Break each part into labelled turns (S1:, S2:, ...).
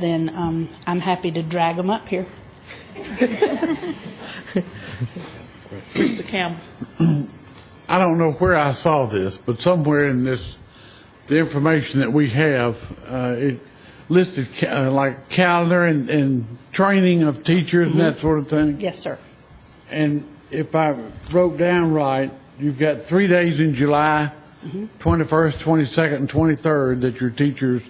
S1: then um, I'm happy to drag them up here.
S2: Mr. Campbell.
S3: I don't know where I saw this, but somewhere in this, the information that we have, uh, it listed ca- uh, like calendar and, and training of teachers and that sort of thing.
S1: Yes, sir.
S3: And if I wrote down right, you've got three days in July, 21st, 22nd, and 23rd, that your teachers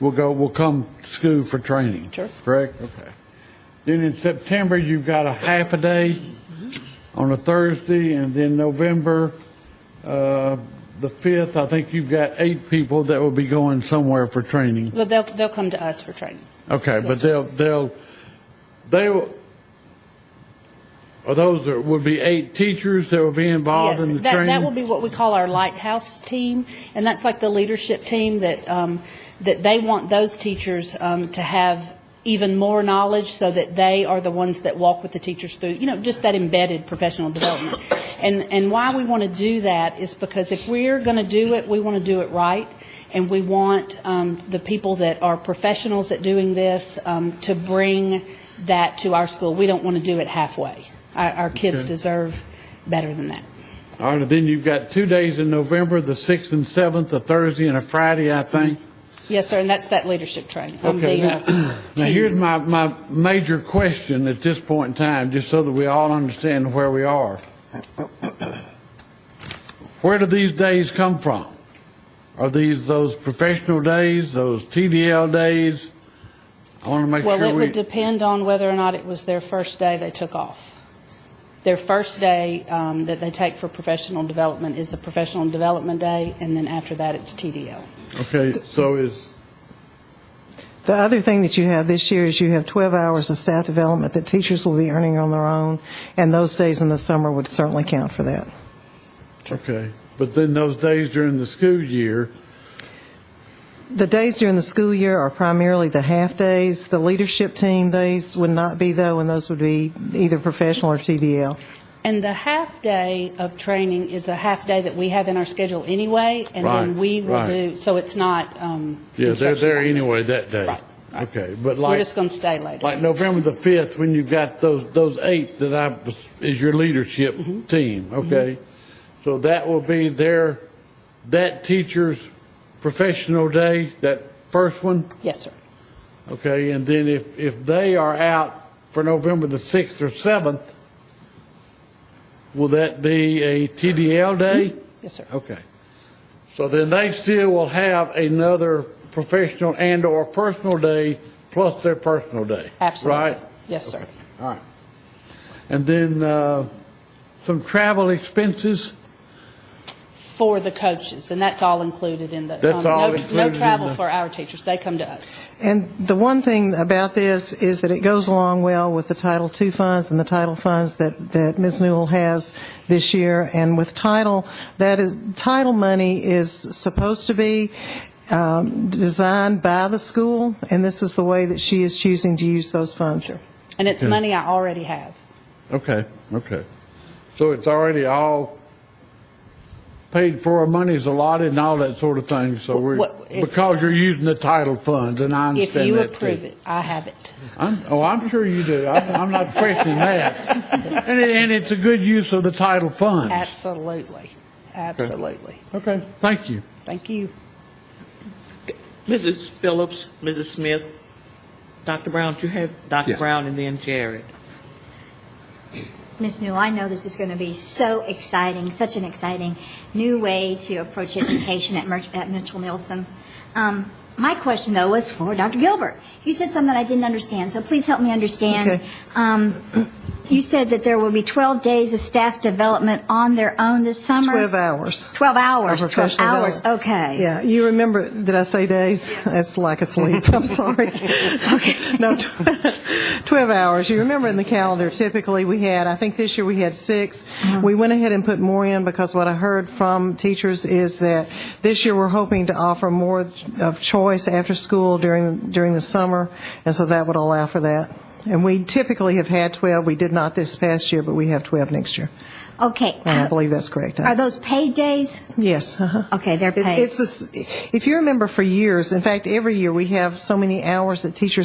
S3: will go, will come to school for training.
S1: Sure.
S3: Correct? Okay. Then in September, you've got a half a day on a Thursday, and then November, uh, the 5th, I think you've got eight people that will be going somewhere for training.
S1: Well, they'll, they'll come to us for training.
S3: Okay, but they'll, they'll, they will, or those are- would be eight teachers that will be involved
S1: Yes,
S3: in the
S1: that,
S3: training?
S1: that will be what we call our lighthouse team, and that's like the leadership team that, um, that they want those teachers um, to have even more knowledge so that they are the ones that walk with the teachers through, you know, just that embedded professional development. And, and why we want to do that is because if we're going to do it, we want to do it right, and we want um, the people that are professionals at doing this um, to bring that to our school. We don't want to do it halfway. Our, our kids deserve better than that.
S3: All right, then you've got two days in November, the 6th and 7th, a Thursday and a Friday, I think.
S1: Yes, sir, and that's that leadership training. uh, I'm
S3: Okay,
S1: being a
S3: now, now
S1: team.
S3: here's my, my major question at this point in time, just so that we all understand where we are. Where do these days come from? Are these those professional days, those TDL days? I want to make sure
S1: Well,
S3: we...
S1: it would depend on whether or not it was their first day they took off. Their first day um, that they take for professional development is a professional development day, and then after that, it's TDL.
S3: Okay, so is,
S4: The other thing that you have this year is you have 12 hours of staff development that teachers will be earning on their own, and those days in the summer would certainly count for that.
S3: okay, but then those days during the school year,
S4: The days during the school year are primarily the half-days. The leadership team days would not be, though, and those would be either professional or TDL.
S1: And the half-day of training is a half-day that we have in our schedule anyway, and then
S3: Right,
S1: we will
S3: right.
S1: do, so it's not. um,
S3: yeah, they're
S1: instruction
S3: there
S1: on this.
S3: anyway that day.
S1: Right, right.
S3: Okay, but
S1: We're
S3: like,
S1: just going to stay later.
S3: like November the 5th, when you've got those, those eight that I, was- is your leadership team, okay? So that will be their, that teacher's professional day, that first one?
S1: Yes, sir.
S3: Okay, and then if, if they are out for November the 6th or 7th, will that be a TDL day?
S1: Yes, sir.
S3: Okay. So then they still will have another professional and/or personal day plus their personal day?
S1: Absolutely.
S3: Right?
S1: Yes, sir.
S3: All right. And then uh, some travel expenses?
S1: for the coaches, and that's all included in the. um,
S3: That's all
S1: no-
S3: included in
S1: No travel
S3: the-
S1: for our teachers, they come to us.
S4: And the one thing about this is that it goes along well with the Title II funds and the title funds that, that Ms. Newell has this year. And with title, that is, title money is supposed to be um, designed by the school, and this is the way that she is choosing to use those funds.
S1: And it's money I already have.
S3: Okay, okay. So it's already all paid for, money's allotted and all that sort of thing, so we're,
S1: What- if-
S3: because you're using the title funds, and I
S1: If
S3: understand
S1: you
S3: that too.
S1: approve it, I have it.
S3: I'm, oh, I'm sure you do. I'm, I'm not questioning that. And, it, and it's a good use of the title funds.
S1: Absolutely, absolutely.
S3: Okay, thank you.
S1: Thank you.
S2: Mrs. Phillips, Mrs. Smith, Dr. Brown, do you have Dr.
S5: Yes.
S2: Brown and then Jared?
S6: Ms. Newell, I know this is going to be so exciting, such an exciting new way to approach education at, Mer- at Mitchell Nielsen. Um, my question, though, was for Dr. Gilbert. You said something that I didn't understand, so please help me understand.
S4: Okay.
S6: Um, you said that there will be 12 days of staff development on their own this summer?
S4: 12 hours.
S6: 12 hours,
S4: Of
S6: 12
S4: professional
S6: hours,
S4: development.
S6: okay.
S4: Yeah, you remember, did I say days? That's like a sleep, I'm sorry. No, tw- 12 hours. You remember in the calendar, typically we had, I think this year we had six.
S6: Mm-hmm.
S4: We went ahead and put more in because what I heard from teachers is that this year we're hoping to offer more of choice after school during, during the summer, and so that would allow for that. And we typically have had 12. We did not this past year, but we have 12 next year.
S6: Okay.
S4: And I believe that's correct.
S6: Are those paid days?
S4: Yes, uh-huh.
S6: Okay, they're
S4: It-
S6: paid.
S4: It's this, if you remember for years, in fact, every year, we have so many hours that teachers